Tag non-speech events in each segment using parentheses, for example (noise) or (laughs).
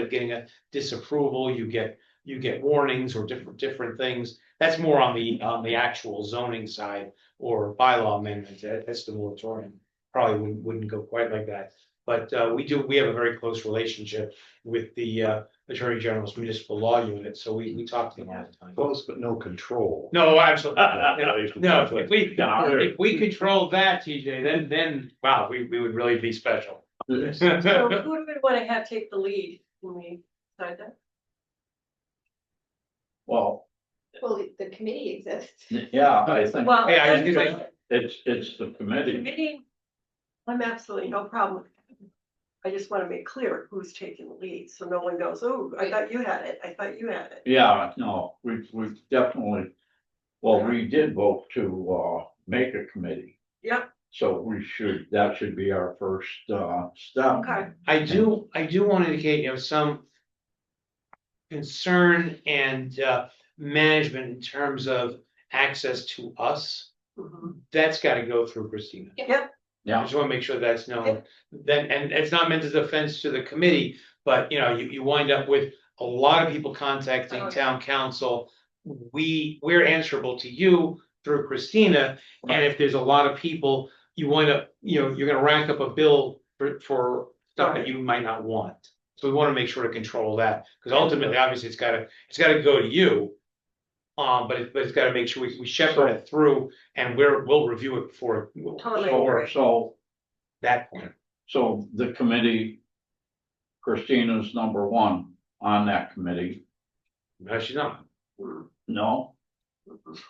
of getting a disapproval, you get, you get warnings or different, different things. That's more on the, on the actual zoning side or bylaw amendment, That- that's the moratorium. Probably wouldn't, wouldn't go quite like that, but, uh, we do, we have a very close relationship with the, uh, Attorney General's Municipal Law Unit, so we, we talk to them all the time. Close but no control. No, absolutely, (laughs) no, No. if we, if we controlled that, TJ, then, then, wow, we, we would really be special. (laughs) So who do we want to have take the lead when we decide that? Well, Well, the committee exists. yeah, I think Well, Hey, I was that's gonna the it's, it's the committee. committee, I'm absolutely no problem. with that. I just want to make clear who's taking the lead, so no one goes, oh, I thought you had it, I thought you had it. Yeah, no, we, we definitely, well, we did vote to, uh, make a committee. Yep. So we should, that should be our first, uh, step. Okay. I do, I do want to indicate, you know, some concern and uh, management in terms of access to us. Mhm. That's got to go through Christina. Yep. I just want to make sure that's known. Then, and it's not meant as offense to the committee, but you know, you, you wind up with a lot of people contacting Okay. town council. We, we're answerable to you through Christina, and if there's a lot of people, you wind up, you know, you're gonna rack up a bill for, for stuff that you might not want. So we wanna make sure to control that, because ultimately, obviously, it's gotta, it's gotta go to you. Um, but it, but it's gotta make sure we we shepherd it through, and we're, we'll review it before, Totally So, agree. so, that point. so the committee, Christina's number one on that committee. No, she's not, Hmm. No,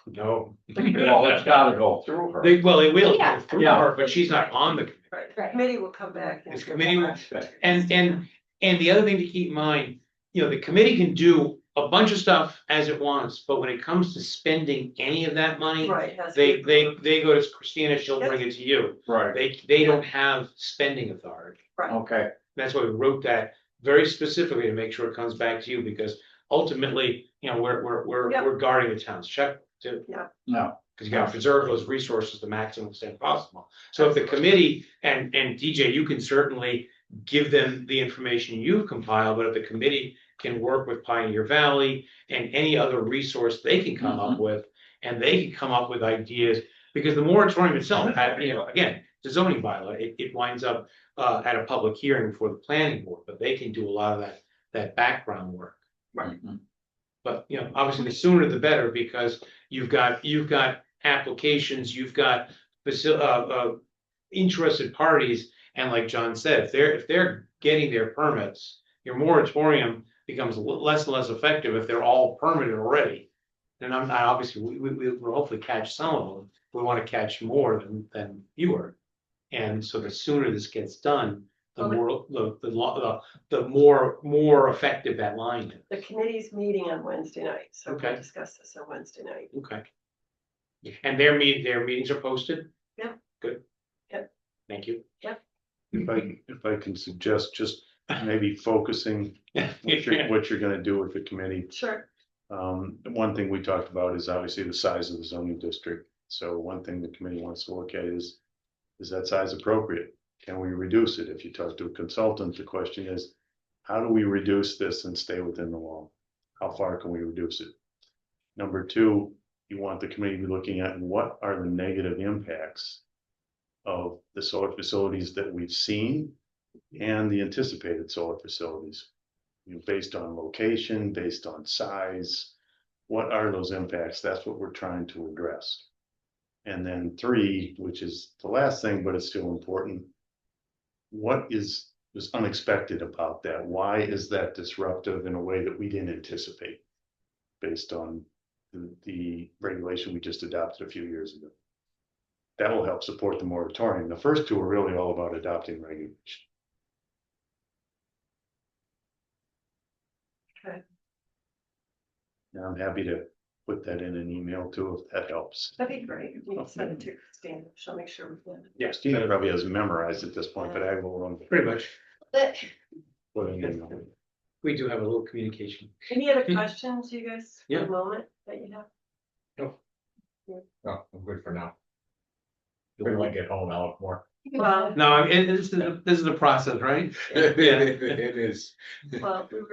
no. well, it's gotta go through her. They, well, they will, go Yeah. through Yeah. her, but she's not on the, Right, Right. committee will come back. and- This committee will- Okay. and, and, and the other thing to keep in mind, you know, the committee can do a bunch of stuff as it wants, but when it comes to spending any of that money, Right. has to They, be they, approved. they go to Christina, she'll bring it to you. Right, They, they don't have spending authority. okay, That's why we wrote that very specifically to make sure it comes back to you, because ultimately, you know, we're, we're, we're, Yep. we're guarding the town's check too. no, Cause you gotta preserve those resources to maximum extent possible. So if the committee, and, and DJ, you can certainly give them the information you've compiled, but if the committee can work with Pioneer Valley and any other resource they can come up with, and they can come up with ideas, because the moratorium itself, had, you know, again, the zoning bylaw, it, it winds up uh, at a public hearing before the planning board, but they can do a lot of that, that background work. Mhm. But, you know, obviously the sooner the better, because you've got, you've got applications, you've got faci- uh, uh, interested parties, and like John said, if they're, if they're getting their permits, your moratorium becomes l- less and less effective if they're all permitted already. And I'm, I obviously, we, we, we will hopefully catch some of them, we wanna catch more than, than fewer. And so the sooner this gets done, the Okay. more, the, the, lo- the, the more, more effective that line is. The committee's meeting on Wednesday night, so Okay. we'll discuss this on Wednesday night. Okay. And their meet, their meetings are posted? Yeah. Good. Yeah. Thank you. If I, if I can suggest just maybe focusing what you're, what you're gonna do with the committee. Sure. Um, one thing we talked about is obviously the size of the zoning district. So one thing the committee wants to look at is, is that size appropriate? Can we reduce it? If you talk to a consultant, the question is, how do we reduce this and stay within the law? How far can we reduce it? Number two, you want the committee to be looking at what are the negative impacts of the solar facilities that we've seen and the anticipated solar facilities? you know, based on location, based on size. What are those impacts? That's what we're trying to address. And then three, which is the last thing, but it's still important. What is, was unexpected about that? Why is that disruptive in a way that we didn't anticipate? Based on the, the regulation we just adopted a few years ago. That will help support the moratorium. The first two are really all about adopting regulation. And I'm happy to put that in an email too, if that helps. That'd be great. You can send it to Christina. She'll make sure we have it. Yes, Christina probably has memorized at this point, but I will. um, pretty much. But put an email. We do have a little communication. Any other Hmm. questions, you guys, for Yeah. the moment that you have? No, I'm good for now. Maybe when I get home, I'll have more Well, No, I mean, this is, this is the process, right? (laughs) Yeah. It is. well, we